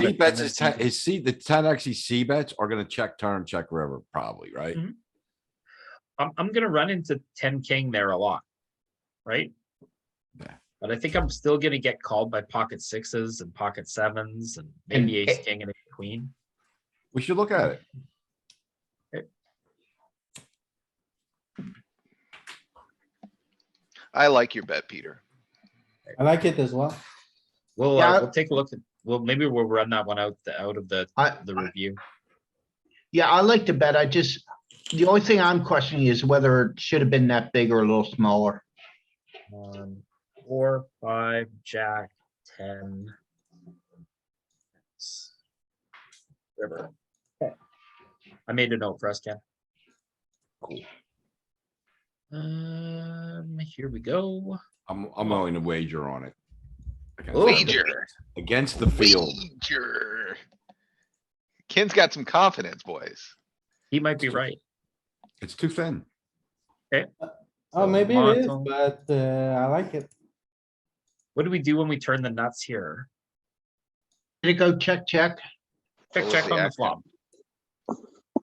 He bets his ten, tendency to- his C, the ten Xe C bets are gonna check turn, check river, probably, right? Mm-hmm. Mhm. I'm, I'm gonna run into ten king there a lot, right? Yeah. But I think I'm still gonna get called by pocket sixes and pocket sevens and And maybe ace it- king and a queen. We should look Mm-hmm. at it. I like your bet, Peter. I like it as well. We'll, Yeah, uh, I- we'll take a look at, well, maybe we'll run that one out, the- out of the, I, the review. yeah, I like to bet. I just, the only thing I'm questioning is whether it should have been that big or a little smaller. Um, four, five, jack, ten. s- River. Okay. I made a note for us, Ken. Cool. Um, here we go. Oh, I'm, I'm willing to wager on it. Ooh. Against the- Wager, Against the field. wager. Ken's got some confidence, boys. He might be right. It's too thin. Oh, So maybe it is, monotone. but uh, I like it. What do we do when we turn the nuts here? Did it go check, check? Check, What was check the on the action? flop.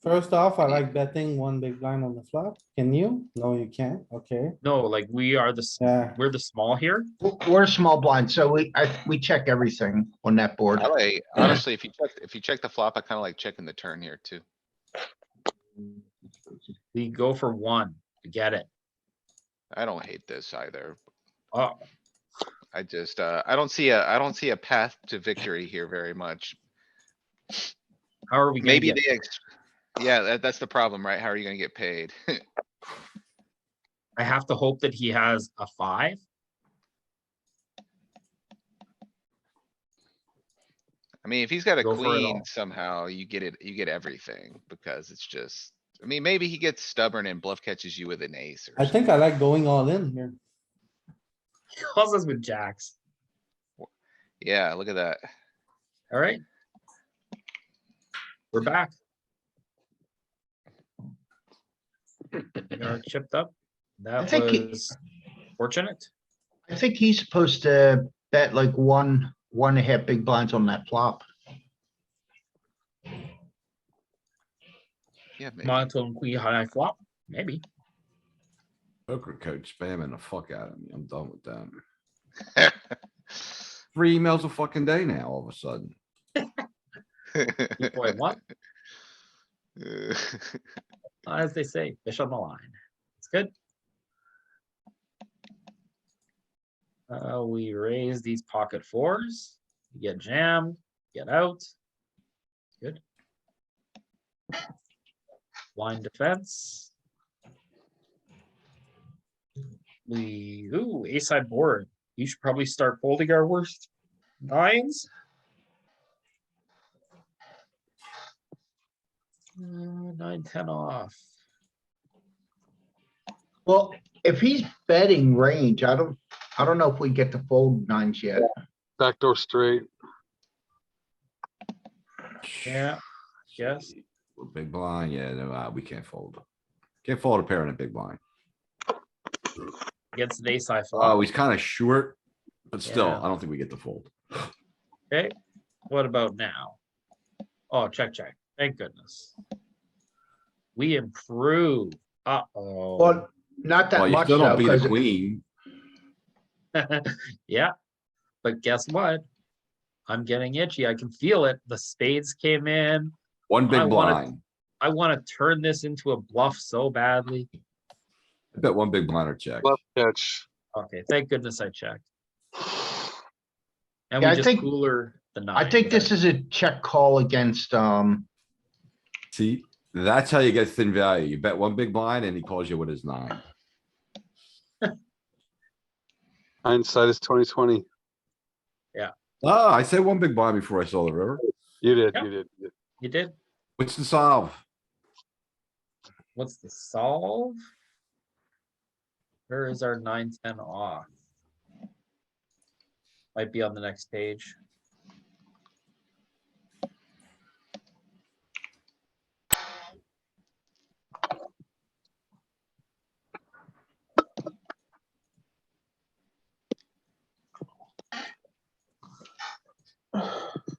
First off, I like betting one big blind on the flop. Can you? No, you can't. Okay, No, like we are the, s- yeah. we're the small here. W- We're a small blind, so we, I, we check everything on that board. I like, honestly, if you check, if you check the flop, I kinda like checking the turn here too. We go for one. We Get it. I don't hate this either. Oh. I just, uh, I don't see a, I don't see a path to victory here very much. How are we? gonna Maybe get- they, ex- yeah, that, that's the problem, right? How are you gonna get paid? I have to hope that he has a five. I mean, if he's got a Go for it queen all. somehow, you get it, you get everything because it's just, I mean, maybe he gets stubborn and bluff catches you with an ace or I think I like going all in here. He Calls us with jacks. Yeah, look at that. All right. We're back. We are chipped up. That think he- was fortunate. I think he's supposed to bet like one, one and a half big blinds on that flop. Yeah, maybe. Monotone queen high flop, maybe. Poker coach spamming the fuck out of me. I'm done with them. Three emails a fucking day now, all of a sudden. Boy, what, Uh, as they say, fish on the line. It's good. Uh, we raise these pocket fours, You get jammed, get out. Good. Line defense. We, ooh, ace side board. You should probably start folding our worst nines. Uh, Nine, ten off. Well, if he's betting range, I don't, I don't know if we get to fold nines yet. Backdoor straight. Yeah, yes. We're Big blind, yeah, no, uh, we can't fold. Can't fold a pair in a big blind. Against an ace high Oh, flop. he's kinda short, but still, Yeah. I don't think we get the fold. What about now? Oh, check, check. Thank goodness. We improve. Uh-oh. Well, not Well, that you much still don't though, beat a 'cause queen. Yeah. But guess what? I'm getting itchy. I can feel it. The spades came in. One I big wanna- blind. I want to turn this into a bluff so badly. I bet one big blind or check. Left catch. Okay, thank goodness I checked. And Yeah, we I just think- cooler the nine. I think this is a check call against, um, See, that's how you get thin value. You bet one big blind and he calls you with his nine. Hindsight is twenty twenty. Ah, I said one big blind before I saw the river. You did, Yeah. you did. you did. You did? What's the solve? What's the solve? Where is our nine, ten off? Might be on the next page.